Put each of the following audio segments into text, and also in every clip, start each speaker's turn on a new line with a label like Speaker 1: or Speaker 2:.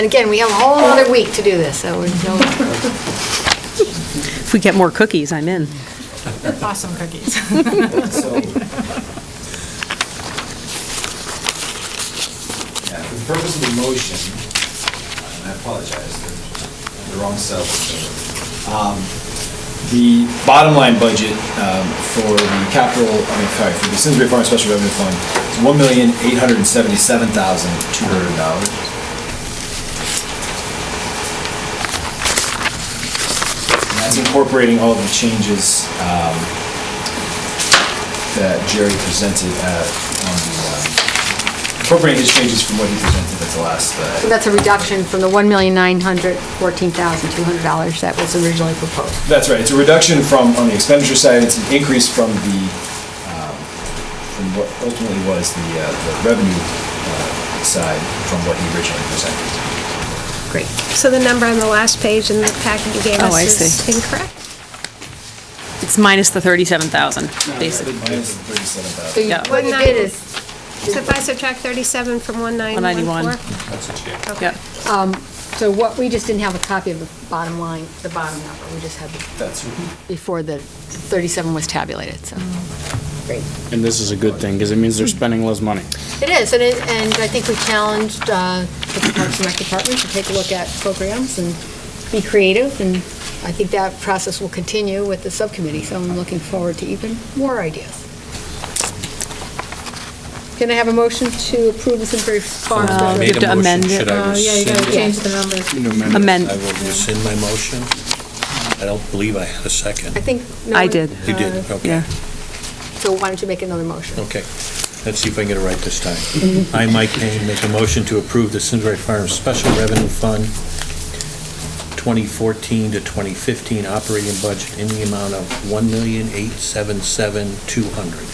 Speaker 1: And again, we have a whole other week to do this, so we're, no-
Speaker 2: If we get more cookies, I'm in.
Speaker 3: Awesome cookies.
Speaker 4: So- Yeah, for the purpose of the motion, and I apologize, the- the wrong cell. Um, The bottom line budget um, for the capital, I mean, sorry, for the Simsbury Farm Special Revenue Fund is one million, eight hundred and seventy-seven thousand, two hundred dollars. And that's incorporating all the changes um, that Jerry presented at, on the, um, incorporating his changes from what he presented at the last. uh,
Speaker 1: so that's a reduction from the $1,914,200 that was originally proposed.
Speaker 4: That's right, it's a reduction from, on the expenditure side, it's an increase from the, um, from what ultimately was the uh, the revenue uh, side from what he originally presented.
Speaker 2: Great.
Speaker 5: So the number on the last page in the packet you gave
Speaker 2: Oh,
Speaker 5: us
Speaker 2: I
Speaker 5: is
Speaker 2: see.
Speaker 5: incorrect?
Speaker 2: It's minus the 37,000, basically.
Speaker 4: Minus the 37,000.
Speaker 1: So you-
Speaker 2: Yeah.
Speaker 1: what you did is,
Speaker 5: So if I subtract 37 from 1914?
Speaker 2: Yep.
Speaker 1: um, so what, we just didn't have a copy of the bottom line, the bottom number, we just had the-
Speaker 4: That's,
Speaker 1: before the 37 was tabulated, so. Great.
Speaker 6: And this is a good thing, because it means they're spending less money.
Speaker 1: It is, and it, and I think we challenged uh, the Parks and Rec Department to take a look at programs and be creative, and I think that process will continue with the subcommittee, so I'm looking forward to even more ideas. Can I have a motion to approve the Simsbury Farm
Speaker 2: Uh,
Speaker 1: Special?
Speaker 2: made a-
Speaker 1: District?
Speaker 2: to amend it. Uh,
Speaker 3: Oh, yeah, you gotta
Speaker 1: change
Speaker 3: change the numbers.
Speaker 2: Amend.
Speaker 7: I will rescind my motion. I don't believe I had
Speaker 1: I
Speaker 7: a second.
Speaker 1: think. no
Speaker 2: I
Speaker 1: one-
Speaker 2: did. Oh.
Speaker 7: You did,
Speaker 1: uh,
Speaker 7: okay.
Speaker 1: So why don't you make another motion?
Speaker 7: Okay. Let's see if I can get it right this time. I, Mike Kane, make a motion to approve the Simsbury Farms Special Revenue Fund 2014 to 2015 operating budget in the amount of $1,877,200.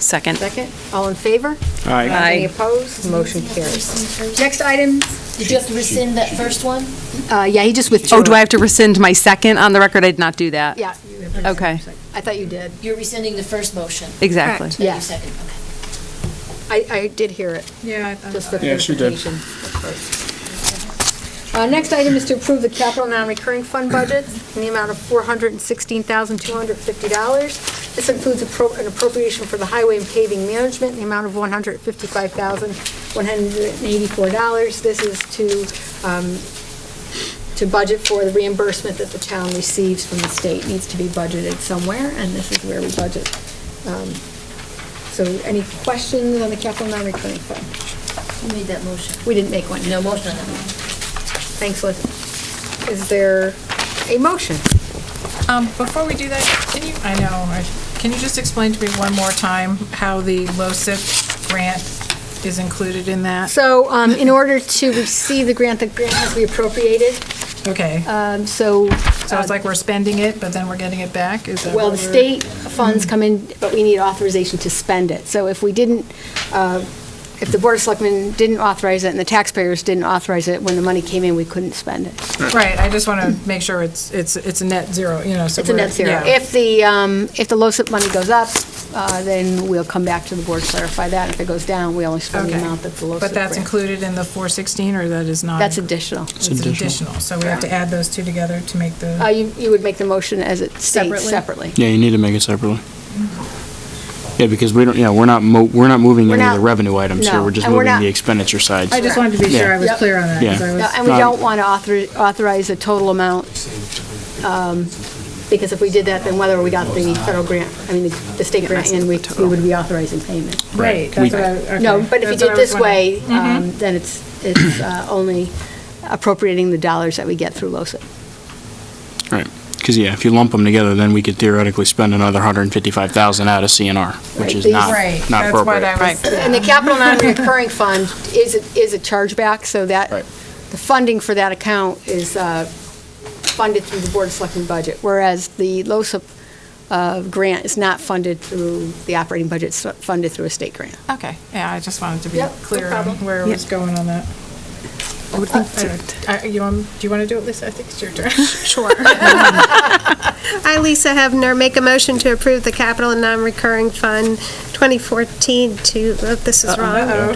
Speaker 2: Second.
Speaker 1: Second, all in favor?
Speaker 6: All right.
Speaker 2: Aye.
Speaker 1: Any opposed? Motion carries. Next item,
Speaker 8: Did you have to rescind that first one?
Speaker 1: uh, yeah, he just withdrew.
Speaker 2: Oh, do I have to rescind my second on the record? I did not do that.
Speaker 1: Yeah. you have to-
Speaker 2: Okay.
Speaker 1: I thought you did.
Speaker 8: You're rescinding the first motion.
Speaker 2: Exactly.
Speaker 8: that you
Speaker 1: Yes.
Speaker 8: seconded. Okay.
Speaker 1: I, I did hear it,
Speaker 3: Yeah. I thought
Speaker 1: just for
Speaker 3: about it.
Speaker 6: Yeah, she did.
Speaker 1: clarification. Uh, Next item is to approve the capital non-recurring fund budget in the amount of $416,250. This includes appro- an appropriation for the highway and paving management in the amount of $155,184. This is to, um, to budget for the reimbursement that the town receives from the state, needs to be budgeted somewhere, and this is where we budget. Um, So any questions on the capital non-recurring fund?
Speaker 8: Who made that motion?
Speaker 1: We didn't make one.
Speaker 8: No motion on that one.
Speaker 1: Thanks, Liz. Is there a motion?
Speaker 3: Um, before we do that, can you, I know, I- can you just explain to me one more time how the LoSiP grant is included in that?
Speaker 1: So, um, in order to receive the grant, the grant has to be appropriated,
Speaker 3: Okay,
Speaker 1: um, so. uh,
Speaker 3: so it's like we're spending it, but then we're getting it back? Is that
Speaker 1: Well, the
Speaker 3: what we're-
Speaker 1: state funds come in, but we need authorization to spend it. So if we didn't, uh, if the Board of Selectmen didn't authorize it and the taxpayers didn't authorize it, when the money came in, we couldn't spend it.
Speaker 3: Right, I just want to make sure it's, it's, it's a net zero, you know, so.
Speaker 1: It's a net
Speaker 3: we're-
Speaker 1: zero.
Speaker 3: yeah.
Speaker 1: If the, um, if the LoSiP money goes up, uh, then we'll come back to the board, clarify that. If it goes down, we only spend the
Speaker 3: Okay.
Speaker 1: amount that's the LoSiP
Speaker 3: But that's
Speaker 1: grant.
Speaker 3: included in the 416, or that is not?
Speaker 1: That's
Speaker 3: included?
Speaker 1: additional.
Speaker 3: It's additional, so we have to add those two together to make
Speaker 1: Uh,
Speaker 3: the,
Speaker 1: You you would make the motion as it states
Speaker 3: Separately?
Speaker 1: separately.
Speaker 6: Yeah, you need to make it separately. Yeah, because we don't, yeah, we're not mo, we're not moving
Speaker 1: We're
Speaker 6: any of the
Speaker 1: not-
Speaker 6: revenue items here,
Speaker 1: no,
Speaker 6: we're just
Speaker 1: and we're
Speaker 6: moving
Speaker 1: not-
Speaker 6: the expenditure side.
Speaker 3: I just wanted to be sure I was
Speaker 1: Yeah.
Speaker 3: clear on that. 'cause I
Speaker 6: Yeah.
Speaker 1: No,
Speaker 3: was-
Speaker 1: And we
Speaker 6: Um,
Speaker 1: don't want to author- authorize a total amount, um, because if we did that, then whether we got the federal grant, I mean, the- the state grant, and we we would be authorizing payment.
Speaker 3: Right,
Speaker 6: We-
Speaker 3: that's what I, okay.
Speaker 1: No, but if you
Speaker 3: That's what
Speaker 1: did
Speaker 3: I was
Speaker 1: this way,
Speaker 3: wondering.
Speaker 1: um, then it's it's uh, only appropriating the dollars that we get through LoSiP.
Speaker 6: Right, because yeah, if you lump them together, then we could theoretically spend another hundred and fifty-five thousand out of CNR,
Speaker 1: Right,
Speaker 6: which is
Speaker 1: these-
Speaker 6: not,
Speaker 3: Right,
Speaker 6: not
Speaker 3: that's what
Speaker 6: appropriate.
Speaker 3: I was,
Speaker 1: And the capital non-recurring fund is, a- is a chargeback, so that,
Speaker 6: Right.
Speaker 1: the funding for that account is uh, funded through the Board of Selectmen budget, whereas the LoSiP uh, grant is not funded through the operating budget, it's funded through a state grant.
Speaker 3: okay, yeah, I just wanted to be
Speaker 1: Yep, no
Speaker 3: clear on
Speaker 1: problem.
Speaker 3: where I was
Speaker 2: Yeah.
Speaker 3: going on that.
Speaker 2: I would think so.
Speaker 3: Uh, you want, do you want to do it, Lisa? I think it's your turn.
Speaker 5: Sure. I, Lisa Hefner, make a motion to approve the capital and non-recurring fund 2014 to, oh, this is wrong.